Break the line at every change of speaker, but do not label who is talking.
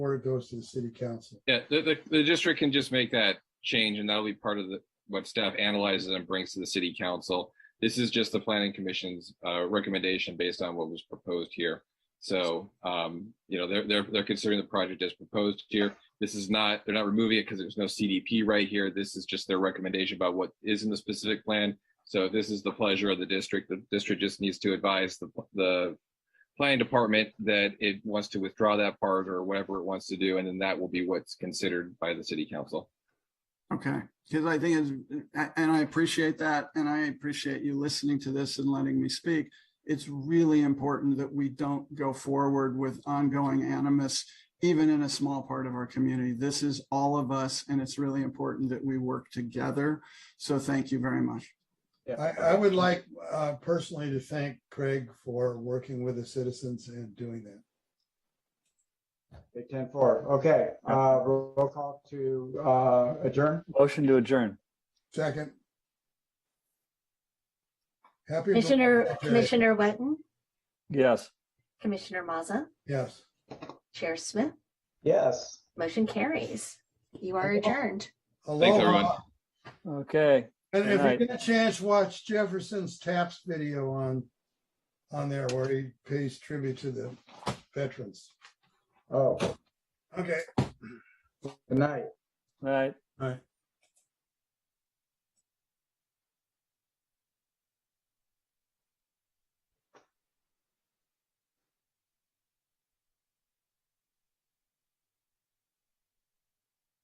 Or it goes to the city council.
Yeah, the, the, the district can just make that change and that'll be part of the, what staff analyzes and brings to the city council. This is just the planning commission's, uh, recommendation based on what was proposed here. So, um, you know, they're, they're, they're considering the project as proposed here. This is not, they're not removing it because there's no CDP right here. This is just their recommendation about what is in the specific plan. So this is the pleasure of the district. The district just needs to advise the, the planning department that it wants to withdraw that part or whatever it wants to do, and then that will be what's considered by the city council.
Okay, because I think it's, a- and I appreciate that, and I appreciate you listening to this and letting me speak. It's really important that we don't go forward with ongoing animus, even in a small part of our community. This is all of us, and it's really important that we work together. So thank you very much.
I, I would like uh, personally to thank Craig for working with the citizens and doing that.
Okay, Ten four, okay, uh, roll call to, uh, adjourn,
Motion to adjourn.
Second. Happy.
Commissioner,
Memorial Day.
Commissioner Wetton,
Yes.
Commissioner Mazza,
Yes.
Chair Smith,
yes.
motion carries. You are adjourned.
everyone.
Aloha.
Okay.
And if
Right.
you get a chance, watch Jefferson's Taps video on, on there where he pays tribute to the veterans.
Oh,
Okay.
good night.
All right.
All right.